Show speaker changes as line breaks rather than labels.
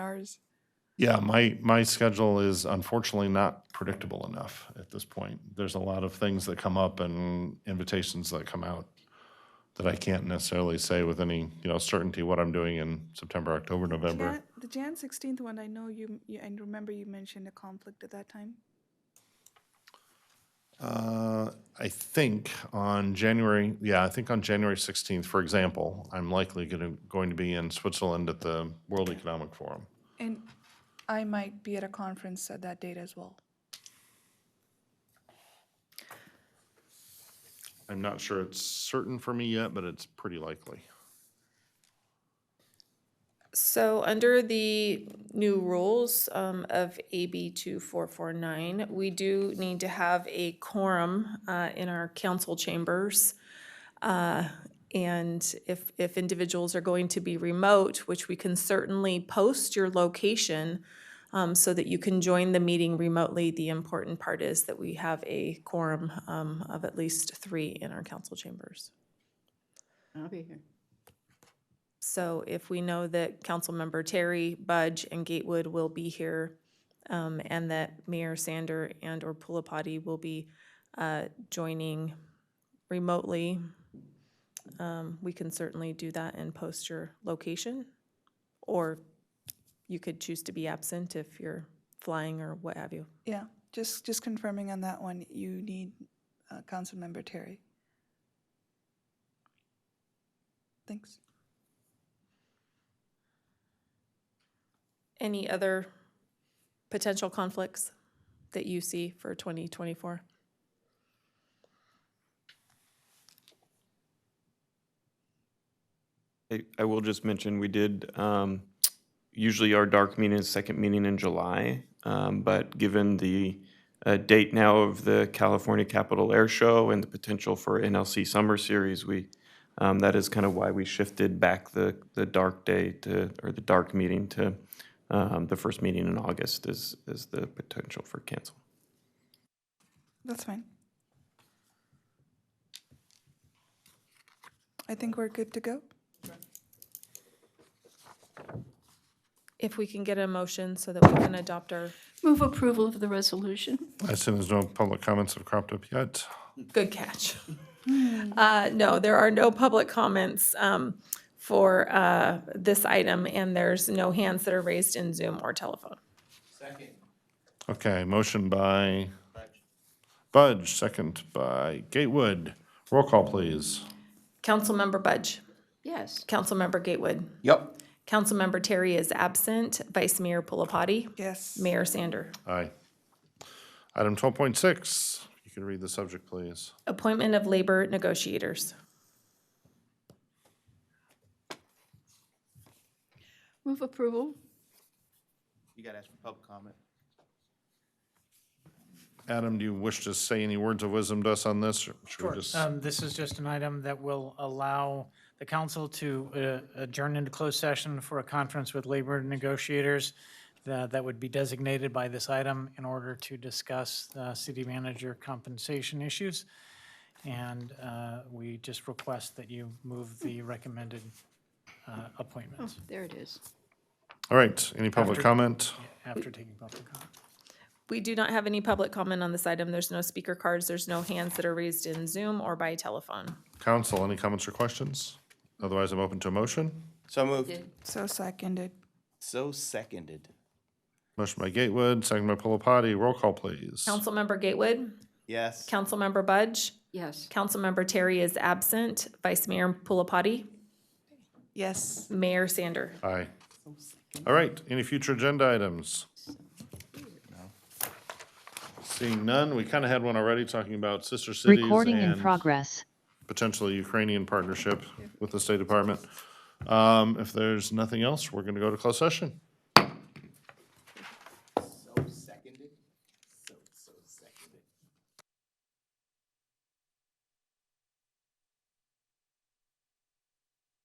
hours.
Yeah, my, my schedule is unfortunately not predictable enough at this point. There's a lot of things that come up and invitations that come out that I can't necessarily say with any, you know, certainty what I'm doing in September, October, November.
Jan- the Jan sixteenth one, I know you, you, and remember you mentioned a conflict at that time.
Uh, I think on January, yeah, I think on January 16th, for example, I'm likely going to, going to be in Switzerland at the World Economic Forum.
And I might be at a conference at that date as well.
I'm not sure it's certain for me yet, but it's pretty likely.
So under the new rules um, of AB 2449, we do need to have a quorum uh, in our council chambers. Uh, And if, if individuals are going to be remote, which we can certainly post your location um, so that you can join the meeting remotely, the important part is that we have a quorum um, of at least three in our council chambers.
I'll be here.
So if we know that Councilmember Terry, Budge, and Gatewood will be here, um, and that Mayor Sander and/or Pulapati will be, uh, joining remotely, um, we can certainly do that and post your location. Or you could choose to be absent if you're flying or what have you.
Yeah, just, just confirming on that one, you need, uh, Councilmember Terry. Thanks.
Any other potential conflicts that you see for twenty twenty-four?
I, I will just mention, we did, um, usually our dark meeting is second meeting in July. Um, but given the, uh, date now of the California Capitol Air Show and the potential for NLC Summer Series, we, um, that is kind of why we shifted back the, the dark day to, or the dark meeting to, um, the first meeting in August is, is the potential for cancel.
That's fine. I think we're good to go.
If we can get a motion so that we can adopt our
Move approval of the resolution.
I assume there's no public comments have cropped up yet.
Good catch. Uh, No, there are no public comments um, for uh, this item, and there's no hands that are raised in Zoom or telephone.
Okay, motion by Budge, second by Gatewood. Roll call, please.
Councilmember Budge,
Yes.
Councilmember Gatewood,
Yep.
Councilmember Terry is absent, Vice Mayor Pulapati,
Yes.
Mayor Sander.
Aye. Item twelve point six, you can read the subject, please.
Appointment of labor negotiators.
Move approval.
You gotta ask for public comment.
Adam, do you wish to say any words of wisdom to us on this? or Should we
Sure.
just,
Um, This is just an item that will allow the council to uh, adjourn into closed session for a conference with labor negotiators tha- that would be designated by this item in order to discuss uh, city manager compensation issues. And uh, we just request that you move the recommended uh, appointments
There it is.
all right, any public
After-
comment?
after taking public comment.
We do not have any public comment on this item. There's no speaker cards, there's no hands that are raised in Zoom or by telephone.
Council, any comments or questions? Otherwise, I'm open to a motion.
So moved.
So seconded.
So seconded.
Motion by Gatewood, second by Pulapati. Roll call, please.
Councilmember Gatewood,
Yes.
Councilmember Budge,
Yes.
Councilmember Terry is absent. Vice Mayor Pulapati,
Yes.
Mayor Sander.
Aye. All right, any future agenda items? Seeing none, we kind of had one already talking about sister cities
Recording in
and
progress.
potentially Ukrainian partnership with the State Department. Um, If there's nothing else, we're going to go to closed session.